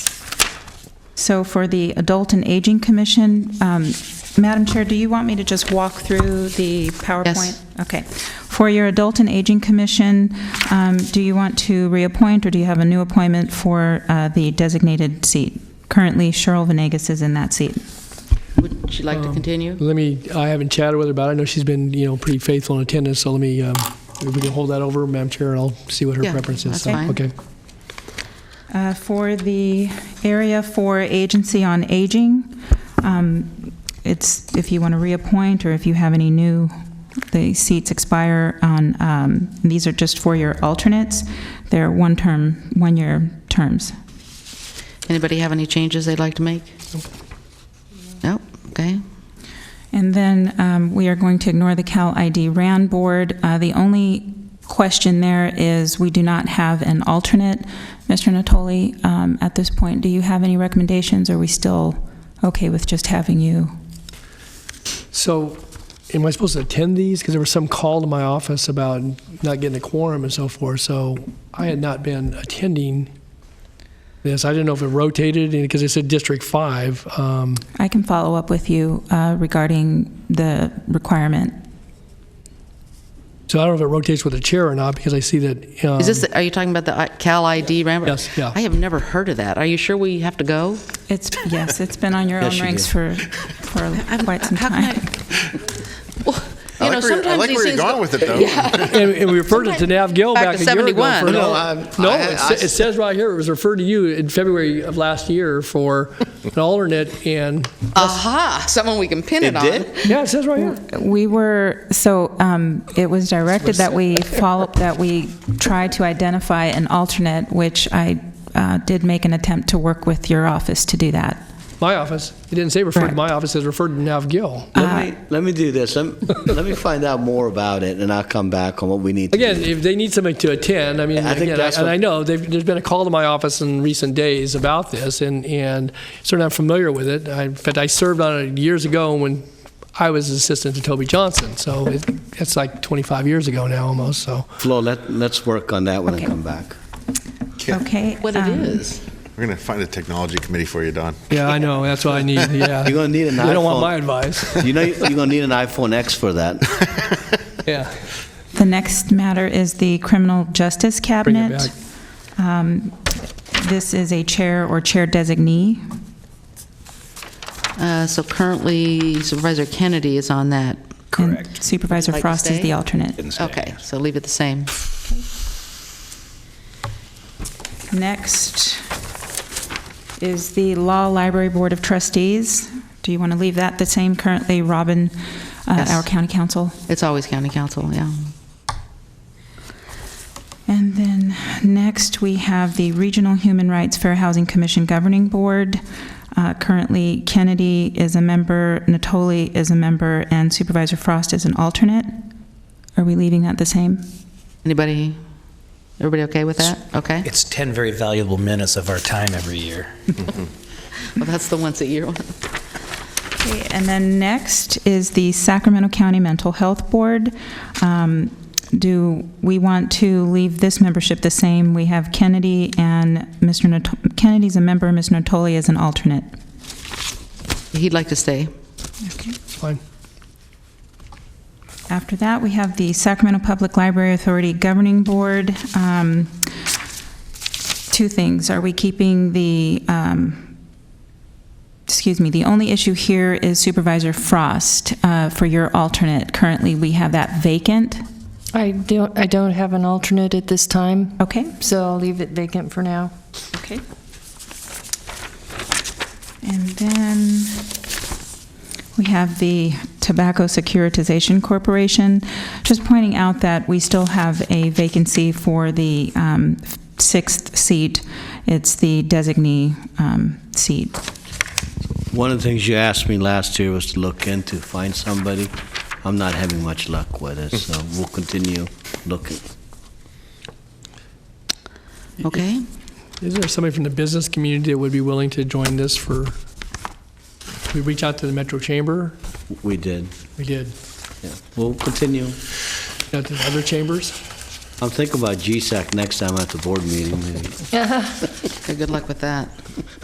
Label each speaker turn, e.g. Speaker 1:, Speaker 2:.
Speaker 1: So for the Adult and Aging Commission, um, Madam Chair, do you want me to just walk through the PowerPoint? Okay. For your Adult and Aging Commission, um, do you want to reappoint, or do you have a new appointment for uh, the designated seat? Currently, Cheryl Venegas is in that seat.
Speaker 2: Would you like to continue?
Speaker 3: Let me, I haven't chatted with her about it. I know she's been, you know, pretty faithful in attendance, so let me, um, if we can hold that over, Madam Chair, and I'll see what her
Speaker 2: Yeah,
Speaker 3: preference is.
Speaker 2: that's
Speaker 3: So,
Speaker 2: fine.
Speaker 3: Okay.
Speaker 1: Uh, For the area for Agency on Aging, um, it's, if you want to reappoint, or if you have any new, the seats expire on, um, these are just for your alternates. They're one-term, one-year terms.
Speaker 2: Anybody have any changes they'd like to make? Nope, okay.
Speaker 1: And then um, we are going to ignore the Cal ID RAN Board. Uh, The only question there is, we do not have an alternate. Mr. Natoli, um, at this point, do you have any recommendations? Are we still okay with just having you?
Speaker 3: So, am I supposed to attend these? Because there was some call to my office about not getting a quorum and so forth, so I had not been attending this. I didn't know if it rotated, because it said District 5. Um,
Speaker 1: I can follow up with you uh, regarding the requirement.
Speaker 3: So I don't know if it rotates with the chair or not, because I see that. um,
Speaker 2: Is this, are you talking about the I- Cal ID Rambo?
Speaker 3: Yes, yeah.
Speaker 2: I have never heard of that. Are you sure we have to go?
Speaker 1: It's, yes, it's been on your own ranks for, for quite some
Speaker 2: How can I-
Speaker 1: time.
Speaker 2: Well,
Speaker 4: I
Speaker 2: You know,
Speaker 4: like where, I
Speaker 2: sometimes
Speaker 4: like
Speaker 2: these
Speaker 4: where you're
Speaker 2: things
Speaker 4: going
Speaker 2: go.
Speaker 4: with it, though.
Speaker 3: And, and we referred it to Nav Gill
Speaker 2: Back
Speaker 3: back,
Speaker 2: to
Speaker 3: a year ago.
Speaker 2: 71.
Speaker 3: For,
Speaker 2: No,
Speaker 4: I'm-
Speaker 3: no
Speaker 4: I-
Speaker 3: it, sa-
Speaker 4: I-
Speaker 3: it says right here it was referred to you in February of last year for an alternate, and
Speaker 2: Aha, someone we can pin it
Speaker 4: It
Speaker 2: on.
Speaker 4: did?
Speaker 3: yeah, it says right here.
Speaker 1: We were, so um, it was directed that we follow, that we try to identify an alternate, which I uh, did make an attempt to work with your office to do that.
Speaker 3: My office. It didn't say referred to
Speaker 1: Right.
Speaker 3: my office. It says referred to Nav Gill.
Speaker 4: Let me, let me do this. Let, let me find out more about it, and I'll come back on what we need to
Speaker 3: Again,
Speaker 4: do.
Speaker 3: if they need somebody to attend, I mean,
Speaker 4: I think
Speaker 3: again, I,
Speaker 4: that's
Speaker 3: and
Speaker 4: what-
Speaker 3: I know they've, there's been a call to my office in recent days about this, and, and certainly I'm familiar with it. I, in fact, I served on it years ago when I was assistant to Toby Johnson, so it, it's like 25 years ago now almost. So
Speaker 4: Flo, let, let's work on that one
Speaker 1: Okay.
Speaker 4: and come back.
Speaker 1: Okay?
Speaker 2: What it
Speaker 1: um,
Speaker 2: is.
Speaker 5: We're going to find a technology committee for you, Don.
Speaker 3: yeah, I know that's what I need. Yeah,
Speaker 4: You're gonna need an
Speaker 3: You don't want
Speaker 4: iPhone.
Speaker 3: my advice.
Speaker 4: You know, you're going to need an iPhone X for that.
Speaker 3: Yeah,
Speaker 1: The next matter is the Criminal Justice
Speaker 3: bring it
Speaker 1: Cabinet. Um,
Speaker 3: back.
Speaker 1: This is a chair or chair designee.
Speaker 2: Uh, So currently Supervisor Kennedy is on that.
Speaker 1: Correct. Supervisor
Speaker 2: Would you like to
Speaker 1: Frost is
Speaker 2: stay?
Speaker 1: the alternate.
Speaker 2: Okay, so leave it the same.
Speaker 1: Next is the Law Library Board of Trustees. Do you want to leave that the same currently, Robin, uh,
Speaker 2: Yes.
Speaker 1: our county council?
Speaker 2: It's always county council, yeah.
Speaker 1: And then next, we have the Regional Human Rights Fair Housing Commission Governing Board. Uh, Currently, Kennedy is a member, Natoli is a member, and Supervisor Frost is an alternate. Are we leaving that the same?
Speaker 2: Anybody, everybody okay with that? Okay?
Speaker 6: It's 10 very valuable minutes of our time every year.
Speaker 2: Well, that's the once a year one.
Speaker 1: Okay, And then next is the Sacramento County Mental Health Board. Um, Do we want to leave this membership the same? We have Kennedy and Mr. Nato- Kennedy's a member, Mr. Natoli is an alternate.
Speaker 2: He'd like to stay.
Speaker 3: It's fine.
Speaker 1: After that, we have the Sacramento Public Library Authority Governing Board. Um, Two things. Are we keeping the, um, excuse me, the only issue here is Supervisor Frost uh, for your alternate. Currently, we have that vacant.
Speaker 7: I don't, I don't have an alternate at this time,
Speaker 1: Okay?
Speaker 7: so I'll leave it vacant for now.
Speaker 1: Okay. And then we have the Tobacco Securitization Corporation. Just pointing out that we still have a vacancy for the um, sixth seat. It's the designee um, seat.
Speaker 4: One of the things you asked me last year was to look into, find somebody. I'm not having much luck with it, so we'll continue looking.
Speaker 2: Okay?
Speaker 3: Is there somebody from the business community that would be willing to join this for? We reach out to the Metro Chamber.
Speaker 4: We did.
Speaker 3: We did.
Speaker 4: Yeah. We'll continue.
Speaker 3: Out to the other chambers.
Speaker 4: I'm thinking about GSAC next time at the board meeting, maybe.
Speaker 2: Okay, Good luck with that.